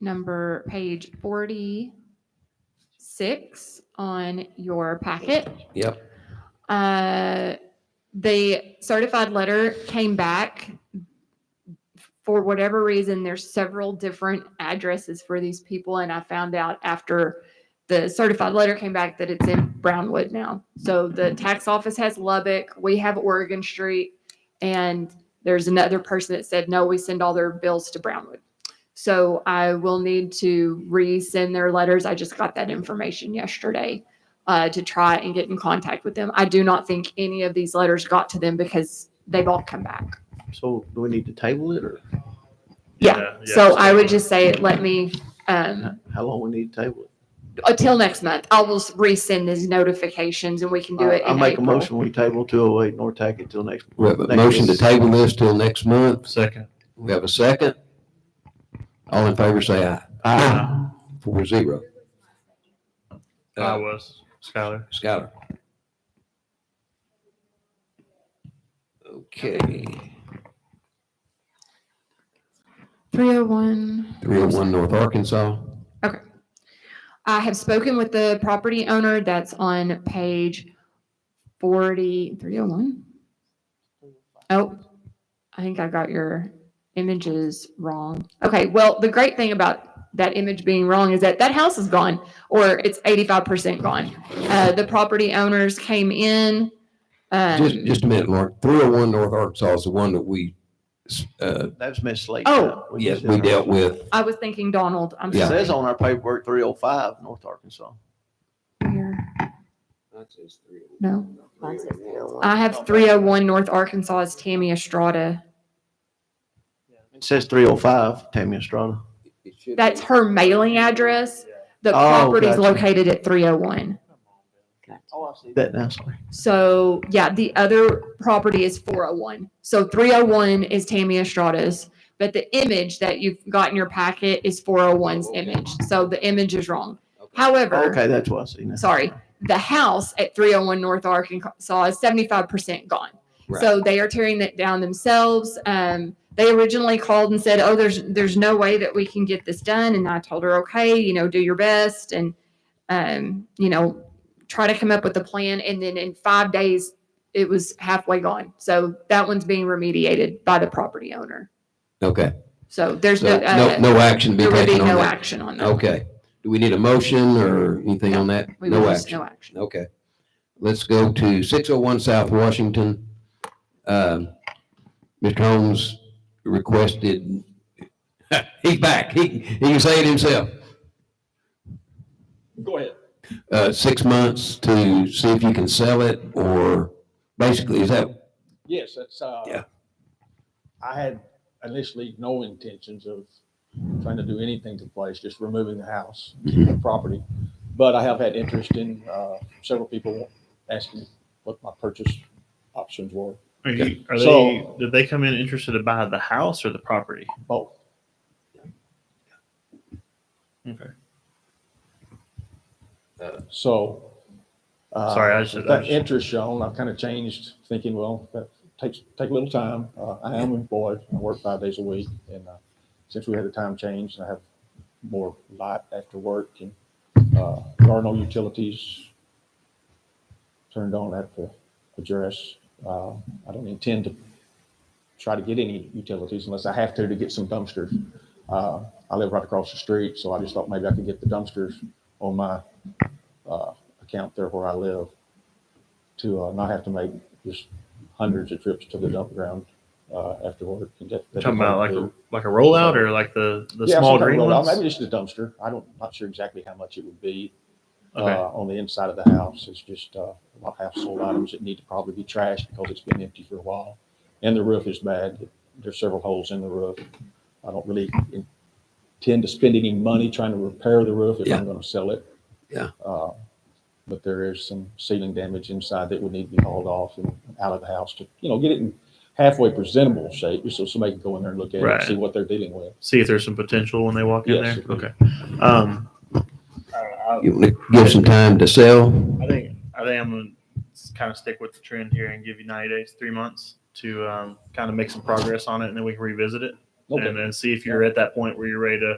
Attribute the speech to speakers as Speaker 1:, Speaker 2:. Speaker 1: number, page 46 on your packet.
Speaker 2: Yep.
Speaker 1: Uh, the certified letter came back. For whatever reason, there's several different addresses for these people, and I found out after the certified letter came back that it's in Brownwood now. So the tax office has Lubbock, we have Oregon Street, and there's another person that said, no, we send all their bills to Brownwood. So I will need to resend their letters. I just got that information yesterday uh, to try and get in contact with them. I do not think any of these letters got to them because they've all come back.
Speaker 3: So do we need to table it or
Speaker 1: Yeah.
Speaker 4: yeah,
Speaker 1: so
Speaker 4: just
Speaker 1: I would
Speaker 4: table it.
Speaker 1: just say, let me, um,
Speaker 3: how long we need to table it?
Speaker 1: until next month, I will resend these notifications and we can do it
Speaker 3: I- I
Speaker 1: in
Speaker 3: make a
Speaker 1: April.
Speaker 3: motion, we table two oh eight North Tackett till next.
Speaker 2: We have a
Speaker 3: next
Speaker 2: motion to
Speaker 3: meeting.
Speaker 2: table this till next month.
Speaker 4: Second.
Speaker 2: We have a second. All in favor, say aye. Aye. Four zero.
Speaker 4: I
Speaker 2: Uh,
Speaker 4: was. Skylar.
Speaker 2: Skylar. Okay,
Speaker 1: 301.
Speaker 2: three oh one North Arkansas.
Speaker 1: I have spoken with the property owner that's on page 40, 301. Oh, I think I got your images wrong. Okay, well, the great thing about that image being wrong is that that house is gone, or it's 85% gone. Uh, The property owners came in.
Speaker 2: Just,
Speaker 1: um,
Speaker 2: just a minute, Lauren. Three oh one North Arkansas is the one that we, s- uh,
Speaker 3: That's mislated.
Speaker 1: Oh.
Speaker 2: yes, we dealt with.
Speaker 1: I was thinking Donald, I'm
Speaker 3: It
Speaker 2: Yeah.
Speaker 3: says
Speaker 1: sorry.
Speaker 3: on our paperwork, three oh five North Arkansas.
Speaker 1: No. I have 301 North Arkansas is Tammy Estrada.
Speaker 3: It says three oh five Tammy Estrada.
Speaker 1: That's her mailing address. The
Speaker 3: Oh,
Speaker 1: property's
Speaker 3: gotcha.
Speaker 1: located at 301.
Speaker 3: That now, sorry.
Speaker 1: So yeah, the other property is 401. So 301 is Tammy Estrada's, but the image that you've got in your packet is 401's image. So the image is wrong. However,
Speaker 3: Okay, that's what I see now.
Speaker 1: sorry, the house at 301 North Arkansas is 75% gone.
Speaker 2: Right.
Speaker 1: So they are tearing that down themselves. Um, they originally called and said, "Oh, there's there's no way that we can get this done." And I told her, "Okay, you know, do your best, and um, you know, try to come up with a plan." And then in five days, it was halfway gone. So that one's being remediated by the property owner.
Speaker 2: Okay,
Speaker 1: So there's
Speaker 2: so
Speaker 1: no, uh,
Speaker 2: no, no action to
Speaker 1: there
Speaker 2: be
Speaker 1: would be
Speaker 2: taken on
Speaker 1: no
Speaker 2: that.
Speaker 1: action on that.
Speaker 2: Okay, do we need a motion or anything on that?
Speaker 1: We would
Speaker 2: No
Speaker 1: just
Speaker 2: action.
Speaker 1: no action.
Speaker 2: Okay. Let's go to six oh one South Washington. Um, Mr. Holmes requested, he's back. He, he can say it himself.
Speaker 5: Go ahead.
Speaker 2: Uh, six months to see if you can sell it or basically, is that,
Speaker 5: Yes, that's, uh,
Speaker 2: Yeah.
Speaker 5: I had initially no intentions of trying to do anything to the place, just removing the house, keeping the property. But I have had interest in, uh, several people asking what my purchase options were,
Speaker 4: Are, you, are
Speaker 5: So-
Speaker 4: they? Did they come in interested to buy the house or the property?
Speaker 5: both.
Speaker 4: Okay.
Speaker 5: So. uh,
Speaker 4: Sorry, I should-
Speaker 5: with That interest shown, I've kind of changed thinking, well, that takes, take a little time. Uh, I am employed. I work five days a week. And, uh, since we had the time change, I have more light after work and, uh, there are no utilities turned on at the address. Uh, I don't intend to try to get any utilities unless I have to to get some dumpsters. Uh, I live right across the street, so I just thought maybe I could get the dumpsters on my uh, account there where I live to uh, not have to make just hundreds of trips to the dump ground uh, after work. and that- that
Speaker 4: talking
Speaker 5: is hard
Speaker 4: about like
Speaker 5: to do.
Speaker 4: a like a rollout or like the the
Speaker 5: Yeah,
Speaker 4: small
Speaker 5: some kind of
Speaker 4: green
Speaker 5: rollout.
Speaker 4: ones.
Speaker 5: Maybe just a dumpster. I don't, not sure exactly how much it would be
Speaker 4: Okay.
Speaker 5: uh, on the inside of the house. It's just uh, a lot of household items that need to probably be trashed because it's been empty for a while. And the roof is bad. There's several holes in the roof. I don't really intend to spend any money trying to repair the roof if
Speaker 2: Yeah.
Speaker 5: I'm going to sell it.
Speaker 2: Yeah.
Speaker 5: Uh, But there is some ceiling damage inside that would need to be hauled off and out of the house to, you know, get it in halfway presentable shape so somebody can go in there and look at it
Speaker 4: Right.
Speaker 5: and see what they're dealing with.
Speaker 4: See if there's some potential when they walk
Speaker 5: Yes,
Speaker 4: in
Speaker 5: it
Speaker 4: there.
Speaker 5: would.
Speaker 4: Okay. Um, I, don't know,
Speaker 2: you want to give some time to sell?
Speaker 4: I, I think I think I'm gonna kind of stick with the trend here and give you 90 days, three months to um, kind of make some progress on it, and then we can revisit it
Speaker 5: Okay.
Speaker 4: and then see if you're at that point where you're ready to